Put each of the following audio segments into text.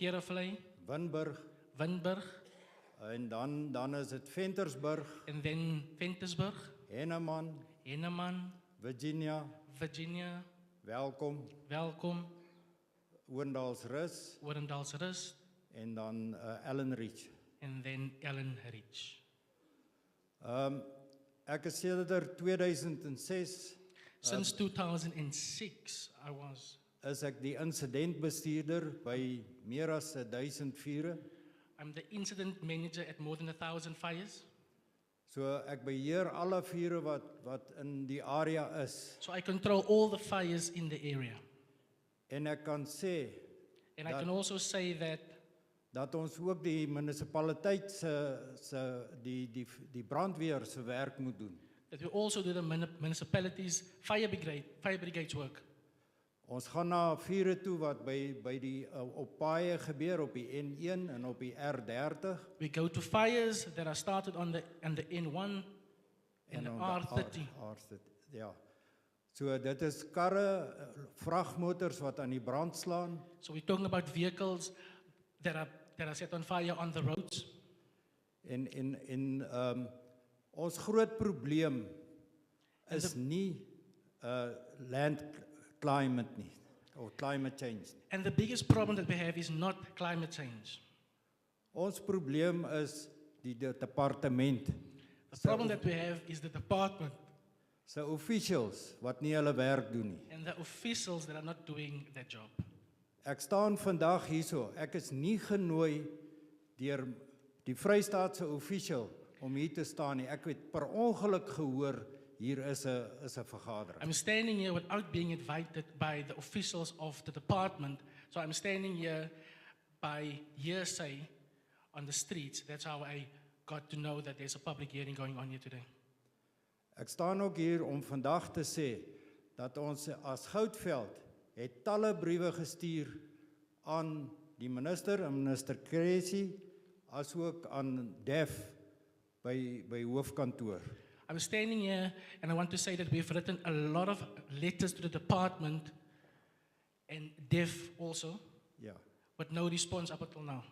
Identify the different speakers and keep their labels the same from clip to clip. Speaker 1: Kerevlei,
Speaker 2: Winburg
Speaker 1: Winburg,
Speaker 2: en dan dan is dit Ventersburg,
Speaker 1: and then Ventersburg,
Speaker 2: Henneman,
Speaker 1: Henneman,
Speaker 2: Virginia,
Speaker 1: Virginia,
Speaker 2: Welkom,
Speaker 1: Welkom,
Speaker 2: Oendalsrus
Speaker 1: Orendalsrus,
Speaker 2: en dan uh, Ellenreach.
Speaker 1: and then Ellen Ridge.
Speaker 2: Ehm um, ek is sedert er 2006
Speaker 1: Since 2006, I was
Speaker 2: is ek die insidentbestuurder by meer as 1000 vure.
Speaker 1: I'm the incident manager at more than a thousand fires,
Speaker 2: So ek beheer alle vure wat wat in die area is
Speaker 1: so I control all the fires in the area.
Speaker 2: en ek kan sê
Speaker 1: And
Speaker 2: That-
Speaker 1: I can also say that
Speaker 2: dat ons ook die munisipaliteit se se die die die brandweer se werk moet doen.
Speaker 1: that we also do the muni- municipalities fire brigade fire brigades work.
Speaker 2: Ons gaan na vure toe wat by by die uh, op paaie gebeur op die N1 en op die R30
Speaker 1: We go to fires that are started on the on the N1 and the
Speaker 2: op die
Speaker 1: R30.
Speaker 2: R- R30. Ja. So dit is karre, eh, vragmotors wat aan die brand slaan
Speaker 1: So we're talking about vehicles that are that are set on fire on the roads.
Speaker 2: en en en ehm um, ons groot probleem is nie uh land climate nie of climate change nie.
Speaker 1: And the biggest problem that we have is not climate change.
Speaker 2: Ons probleem is die de- departement
Speaker 1: The problem that we have is the department
Speaker 2: se officials wat nie hulle werk doen nie.
Speaker 1: and the officials that are not doing their job.
Speaker 2: Ek staan vandag hierso. Ek is nie genooi deur die Vrystaatse official om hier te staan nie. Ek het per ongeluk gehoor hier is 'n is 'n vergadering.
Speaker 1: I'm standing here without being invited by the officials of the department. So I'm standing here by hearsay on the streets. That's how I got to know that there's a public hearing going on here today.
Speaker 2: Ek staan ook hier om vandag te sê dat ons as Goudveld het talle briewe gestuur aan die minister, aan minister Cressy, asook aan Def by by hoofkantoor.
Speaker 1: I'm standing here and I want to say that we've written a lot of letters to the department and DEF also,
Speaker 2: Ja.
Speaker 1: but no response up until now.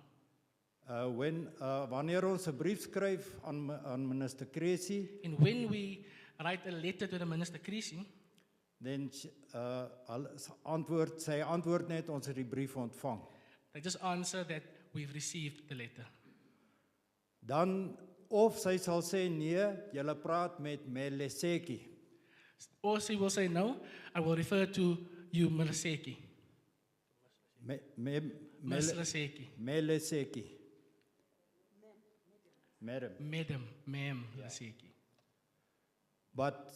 Speaker 2: Uh when uh wanneer ons 'n brief skryf aan mi- aan minister Cressy
Speaker 1: And when we write a letter to the Minister Creasy,
Speaker 2: Dan s- uh al s- antwoord sy antwoord net ons het die brief ontvang.
Speaker 1: they just answer that we've received the letter.
Speaker 2: Dan of sy sal sê nee, jy praat met Meleseki.
Speaker 1: Or she will say, No, I will refer to you, Meliseki.
Speaker 2: Me, me, Mele-
Speaker 1: Meliseki.
Speaker 2: Meleseki. Madam.
Speaker 1: Madam, ma'am, Meliseki.
Speaker 2: But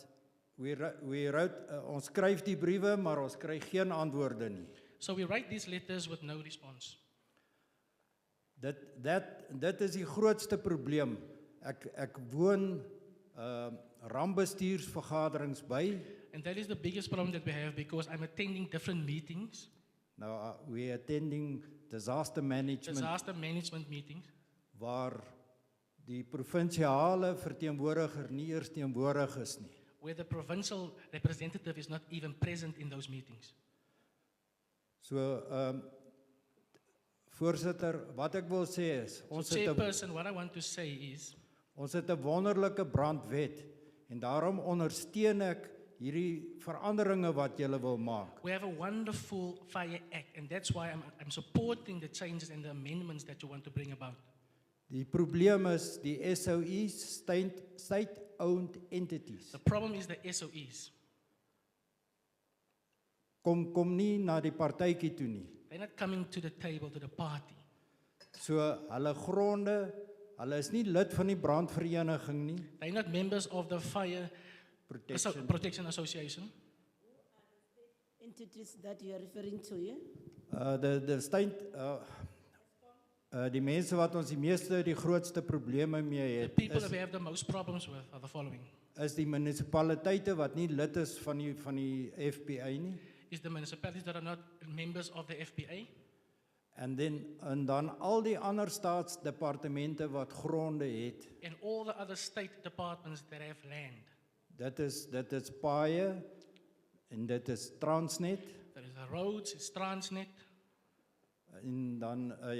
Speaker 2: we wri- we wrote uh, ons skryf die briewe, maar ons kry geen antwoorde nie.
Speaker 1: So we write these letters with no response.
Speaker 2: Dit dat dit is die grootste probleem. Ek ek woon ehm uh, rampbestuursvergaderings by
Speaker 1: And that is the biggest problem that we have because I'm attending different meetings,
Speaker 2: Nou uh, we attending disaster management
Speaker 1: disaster management meetings,
Speaker 2: waar die provinsiale verteenwoordiger nie eers teenwoordig is nie.
Speaker 1: where the provincial representative is not even present in those meetings.
Speaker 2: So ehm um, voorsitter, wat ek wil sê is ons
Speaker 1: so,
Speaker 2: het 'n
Speaker 1: chairperson, what I want to say is
Speaker 2: ons het 'n wonderlike brandwet en daarom ondersteun ek hierdie veranderinge wat julle wil maak.
Speaker 1: we have a wonderful fire act, and that's why I'm, I'm supporting the changes and the amendments that you want to bring about.
Speaker 2: Die probleem is die SOEs, state state owned entities.
Speaker 1: The problem is the SOEs.
Speaker 2: Kom kom nie na die partytjie toe nie.
Speaker 1: They're not coming to the table, to the party.
Speaker 2: So hulle gronde, hulle is nie lid van die brandvereniging nie.
Speaker 1: They're not members of the Fire Asso-
Speaker 2: Protection.
Speaker 1: Protection Association.
Speaker 3: entities that you are referring to, yeah?
Speaker 2: Uh die die stein uh uh die mense wat ons die meeste die grootste probleme
Speaker 1: The
Speaker 2: mee het
Speaker 1: people
Speaker 2: is
Speaker 1: that we have the most problems with are the following.
Speaker 2: is die munisipaliteite wat nie lid is van die van die FPA nie.
Speaker 1: Is the municipalities that are not members of the FPA
Speaker 2: En dan en dan al die ander staatsdepartemente wat gronde het.
Speaker 1: and all the other state departments that have land.
Speaker 2: Dit is dit is paaie en dit is Transnet
Speaker 1: There is the roads, it's Transnet,
Speaker 2: en dan eh, 'n